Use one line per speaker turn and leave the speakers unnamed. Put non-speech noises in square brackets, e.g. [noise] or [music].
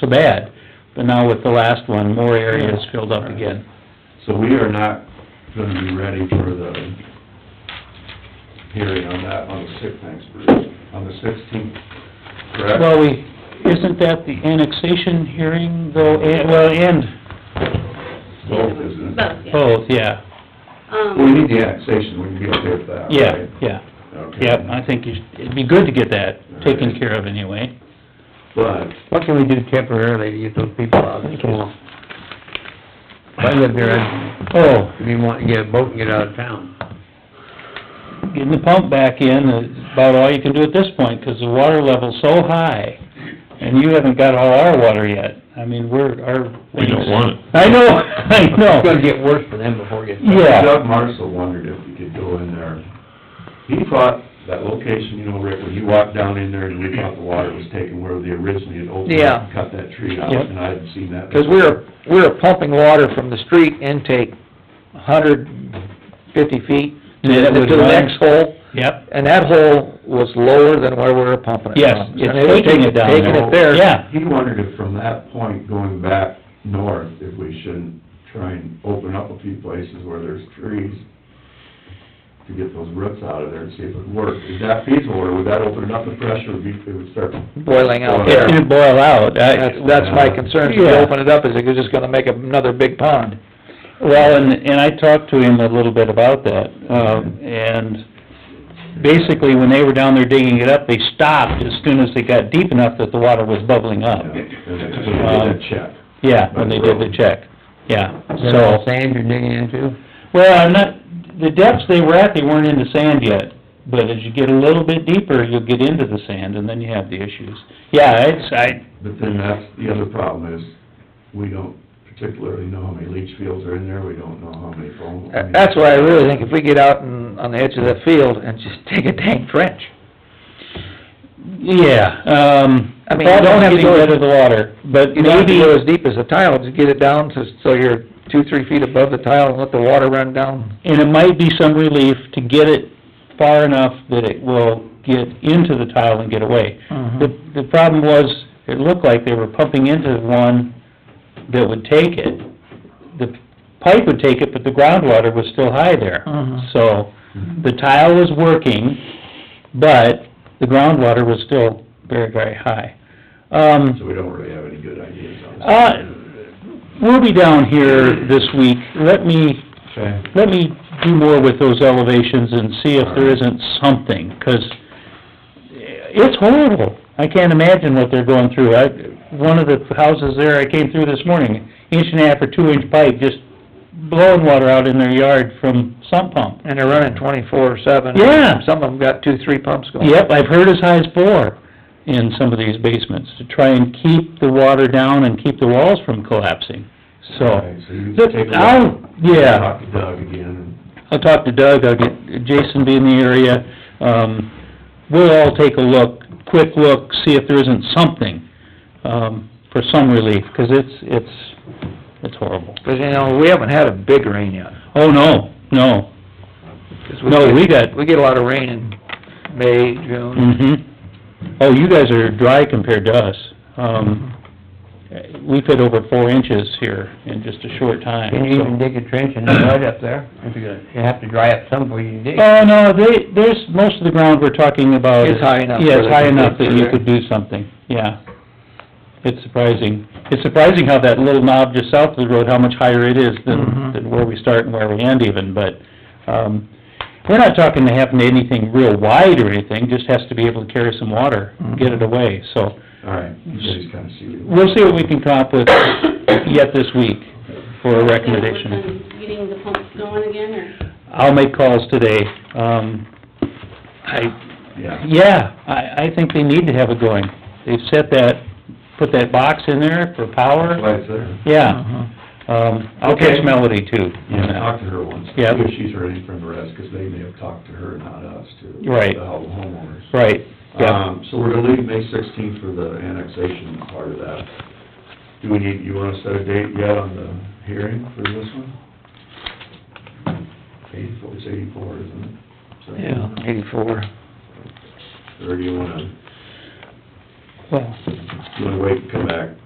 so bad. But now with the last one, more area is filled up again.
So we are not gonna be ready for the hearing on that on the sixth, thanks, Bruce, on the sixteenth, correct?
Well, we, isn't that the annexation hearing though, and, well, and
Both, isn't it?
Both, yeah.
both, yeah,
Um,
We need the annexation, we can get there with that, right?
yeah, yeah.
Okay.
Yeah, I think you should- it'd be good to get that taken care of anyway.
But,
What can we do temporarily to get those people out of the swamp? If I lived there, I'd
Oh,
be wanting to get a boat and get out of town.
getting the pump back in is about all you can do at this point, 'cause the water level's so high, and you haven't got all our water yet. I mean, we're, our...
We don't want it.
I know, [laughs] I
It's gonna
know.
get worse for them before it gets...
Yeah.
Doug Marshall wondered if we could go in there. He thought that location, you know, Rick, when you walked down in there and we thought the water was taken where they originally had opened
Yeah.
up and cut that tree out,
Yep.
and I hadn't seen that.
Because we were, we were pumping water from the street intake a hundred fifty feet
Yeah,
to
that was
the
mine.
next hole,
Yep,
and that hole was lower than where we were pumping it.
Yes,
from.
it's
And they were
Um, taking it down
Taking
there.
it there.
Yeah.
He wondered if from that point going back north, if we shouldn't try and open up a few places where there's trees to get those roots out of there and see if it would work. Is that feasible, or would that open it up, the pressure would be, it would start?
Boiling out there.
it'd boil out. I-
That's, that's my concern, if you
Yeah.
open it up, is it just gonna make another big pond?
Well, and, and I talked to him a little bit about that, um, and basically, when they were down there digging it up, they stopped as soon as they got deep enough that the water was bubbling up. Um,
And it's a check.
Yeah, when they did the check, yeah, so...
Sand you're digging into?
Well, I'm not, the depths they were at, they weren't into sand yet, but as you get a little bit deeper, you'll get into the sand, and then you have the issues. Yeah, it's, I,
But then that's, the other problem is, we don't particularly know how many leach fields are in there, we don't know how many foam. I mean-
That's why I really think if we get out and, on the edge of the field and just [laughs] dig a dang trench,
yeah, um,
I mean, you
problem
don't have to
is getting
go-
rid of the water, but
you don't have to
maybe,
go as deep as the tile, just get it down to, so you're two, three feet above the tile and let the water run down.
and it might be some relief to get it far enough that it will get into the tile and get away.
Mm-hmm.
The, the problem was, it looked like they were pumping into one that would take it. The pipe would take it, but the groundwater was still high there.
Mhm.
So, the tile was working, but the groundwater was still very, very high.
So
Um,
we don't really have any good ideas on this.
uh, we'll be down here this week. Let me,
Okay.
let me do more with those elevations and see if there isn't something, 'cause it's horrible. I can't imagine what they're going through. I, one of the houses there, I came through this morning, inch and a half or two inch pipe just blowing water out in their yard from sump pump.
And they're running twenty-four seven.
Yeah.
Some of them got two, three pumps going.
Yep, I've heard as high as four in some of these basements, to try and keep the water down and keep the walls from collapsing,
All
so.
right, So you
Look,
take a
I'll-
look.
yeah.
Talk to Doug again.
I'll talk to Doug, I'll get Jason be in the area, um, we'll all take a look, quick look, see if there isn't something, um, for some relief, 'cause it's, it's, it's horrible.
Because, you know, we haven't had a big rain yet.
Oh, no, no,
'Cause
No, we
get-
got-
We get a lot of rain in May,
mhm.
June.
Mm-hmm.
Oh, you guys are dry compared to us, um, we've hit over four inches here in just a short time,
Can you [clears throat]
so.
even dig a trench and mud up there? If you're gonna, you have to dry up some before you dig.
Oh, no, they, there's, most of the ground we're talking about...
It's high enough
Yeah,
where
it's
they
high
can
enough that
dig through
you
there.
could do something, yeah. It's surprising. It's surprising how that little knob just south of the road, how much higher it is than,
Mhm.
than where we start and where we end even, but, um, we're not talking to happen to anything real wide or anything, just has to be able to carry some water,
Mm-hmm.
get it away, so.
All right, you guys kind of see. what-
We'll see what we can come up with yet this week for a recommendation.
Gonna work on Getting the pumps going again, or?
I'll make calls today. Um, I,
Yeah.
yeah, I, I think they need to have it going. They've set that, put that box in there for
That's
power.
why it's there.
Uh-huh.
Yeah. Um, I'll catch
Okay.
Melody too.
Yeah, talk to her once.
Yeah.
See if she's heard anything from the rest, 'cause they may have talked to her, not us, too.
Right.
The homeowners.
Right, yeah.
Um, so we're gonna leave May sixteenth for the annexation part of that. Do we need, you wanna set a date yet on the hearing for this one? Eighty-four, it's eighty-four, isn't it? So-
Yeah, eighty-four.
Or do you wanna,
Well,
you wanna wait and come back